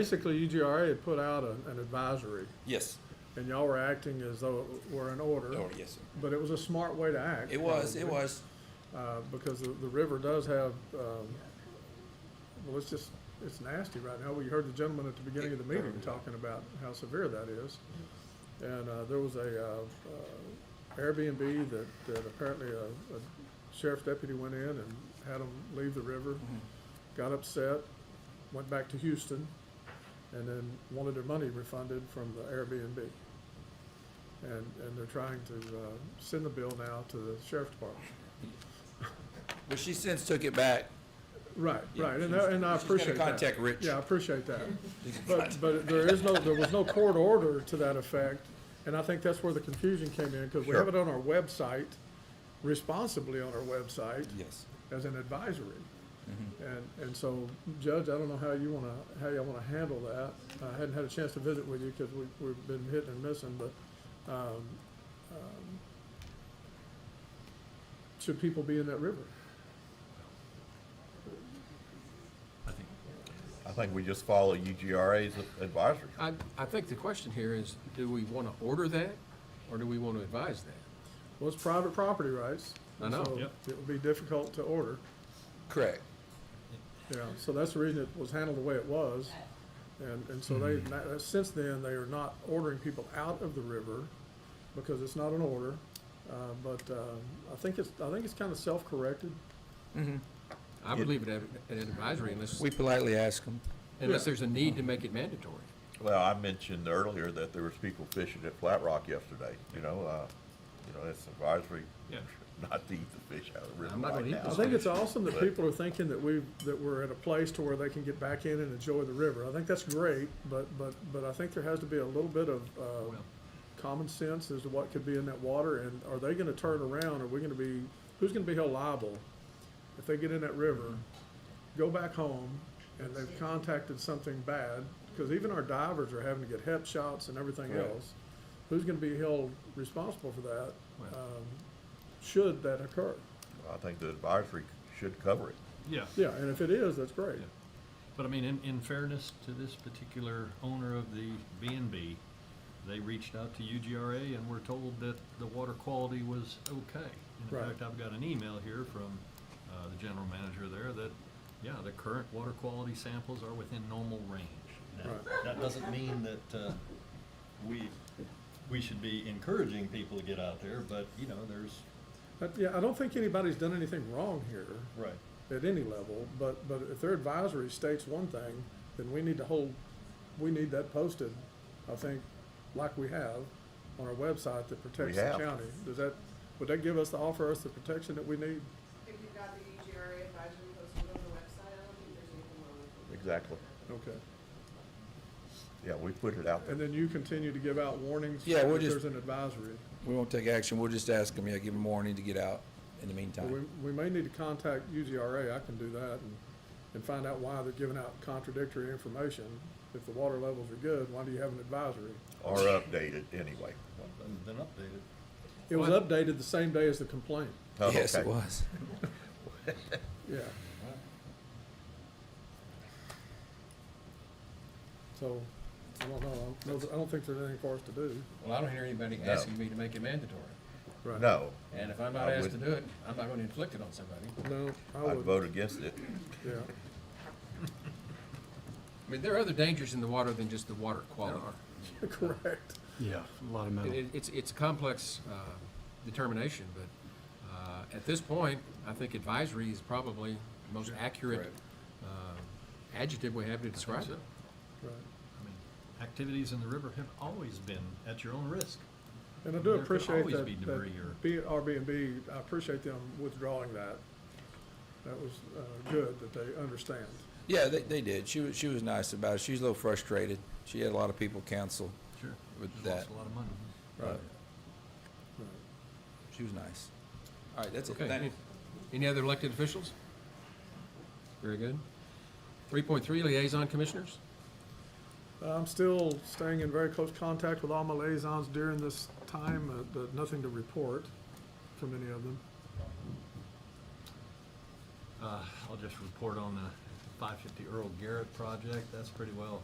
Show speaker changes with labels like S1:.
S1: Basically, UGRA had put out a- an advisory,
S2: Yes,
S1: and y'all were acting as though it were an order,
S2: or yes, sir.
S1: but it was a smart way to act.
S2: It was, it
S1: probably,
S2: was,
S1: uh, Because the, the river does have, um, well, it's just, it's nasty right now. We heard the gentleman at the beginning of the meeting talking about how severe that is. And uh, there was a uh, uh, Airbnb that that apparently a a sheriff's deputy went in and had them leave the river, got upset, went back to Houston, and then wanted their money refunded from the Airbnb. And, and they're trying to uh, send the bill now to the sheriff's department.
S2: but she since took it back.
S1: Right,
S2: Yeah,
S1: right, and
S2: she's-
S1: I, and I
S2: she's gonna
S1: appreciate that.
S2: contact Rich.
S1: Yeah, I appreciate that. But, but there is no, there was no court order to that effect, and I think that's where the confusion came in, because we have it
S2: Sure.
S1: on our website, responsibly on our website,
S2: Yes,
S1: as an advisory.
S3: Mm-hmm.
S1: And, and so, Judge, I don't know how you wanna, how you wanna handle that. I hadn't had a chance to visit with you, because we, we've been hitting and missing, but, um, um, should people be in that river?
S4: I think we just follow UGRA's advisory.
S3: I, I think the question here is, do we want to order that, or do we want to advise that?
S1: Well, it's private property rights.
S3: I know.
S1: so
S3: Yep.
S1: It would be difficult to order,
S2: correct.
S1: yeah, so that's the reason it was handled the way it was. And, and so they, na- since then, they are not ordering people out of the river because it's not an order. Uh, but, um, I think it's, I think it's kind of self-corrected.
S3: I would leave it at at advisory unless,
S2: We politely asked them.
S3: unless there's a need to make it mandatory.
S4: Well, I mentioned earlier that there was people fishing at Flat Rock yesterday, you know, uh, you know, that's advisory, not to eat the fish out of the river
S3: I'm not gonna
S4: right
S3: eat
S4: now.
S1: I
S3: those
S1: think it's awesome that people are thinking that we, that we're at a place to where they can get back in and enjoy the river. I think that's great, but, but, but I think there has to be a little bit of, uh, common sense as to what could be in that water, and are they gonna turn around, are we gonna be, who's gonna be held liable if they get in that river, go back home, and they've contacted something bad, because even our divers are having to get hep shots and everything
S4: Right.
S1: else. Who's gonna be held responsible for that,
S3: Well.
S1: um, should that occur?
S4: I think the advisory should cover it.
S5: Yeah,
S1: Yeah, and if it is, that's great.
S5: Yeah. but I mean, in, in fairness to this particular owner of the B and B, they reached out to UGRA and were told that the water quality was okay. And
S1: Right.
S5: In fact, I've got an email here from, uh, the general manager there that, yeah, the current water quality samples are within normal range. Now,
S1: Right.
S5: That doesn't mean that, uh, we, we should be encouraging people to get out there, but, you know, there's,
S1: But, yeah, I don't think anybody's done anything wrong here.
S5: right,
S1: at any level, but, but if their advisory states one thing, then we need to hold, we need that posted, I think, like we have on our website that protects the
S4: have.
S1: county. Does that, would that give us, the offer us the protection that we need?
S6: If you've got the E EGRA advisory posted on the website, I don't think there's anything wrong with it.
S4: Exactly.
S1: Okay.
S4: Yeah, we put it out
S1: And
S4: there.
S1: then you continue to give out warnings
S2: Yeah, we'll
S1: if
S2: just-
S1: there's an advisory.
S2: We won't take action, we'll just ask them, yeah, give them warning to get out in the
S1: But We,
S2: meantime.
S1: we may need to contact UGRA, I can do that, and, and find out why they're giving out contradictory information. If the water levels are good, why do you have an advisory?
S4: Or update it anyway.
S5: been updated.
S1: It was
S3: Well, I-
S1: updated the same day as the complaint,
S4: Oh,
S2: Yes, it
S4: okay.
S2: was.
S1: yeah. So, I don't know, I don't, I don't think there's anything for us to do.
S3: Well, I don't hear anybody
S4: No.
S3: asking me to make it mandatory,
S1: Right.
S4: No,
S3: and if I'm not
S4: I
S3: asked to
S4: wouldn't.
S3: do it, I'm not going to inflict it on somebody.
S1: No, I
S4: I'd
S1: would,
S4: vote against it.
S1: yeah,
S3: I mean, there are other dangers in the water than just the water quality.
S1: correct.
S7: Yeah, a lot of
S3: It-
S7: metal.
S3: It, it's, it's a complex uh, determination, but uh, at this point, I think advisory is probably the most accurate
S2: correct.
S3: uh, adjective we have to describe it.
S1: Right.
S5: I mean, activities in the river have always been at your own risk.
S1: And I do
S5: There could
S1: appreciate
S5: always
S1: that,
S5: be debris or-
S1: that B, Airbnb, I appreciate them withdrawing that. That was, uh, good that they understand.
S2: Yeah, they, they did, she was, she was nice about it, she was a little frustrated, she had a lot of people counsel,
S5: Sure.
S2: With
S5: Just lost
S2: that.
S5: a lot of money.
S2: but
S1: Right.
S2: she was nice. All right, that's it,
S3: Okay.
S2: thank you.
S3: any- Any other elected officials? Very good. Three point three, liaison commissioners?
S1: I'm still staying in very close contact with all my liaisons during this time, uh, but nothing to report from any of them.
S5: Uh, I'll just report on the five fifty Earl Garrett project, that's pretty well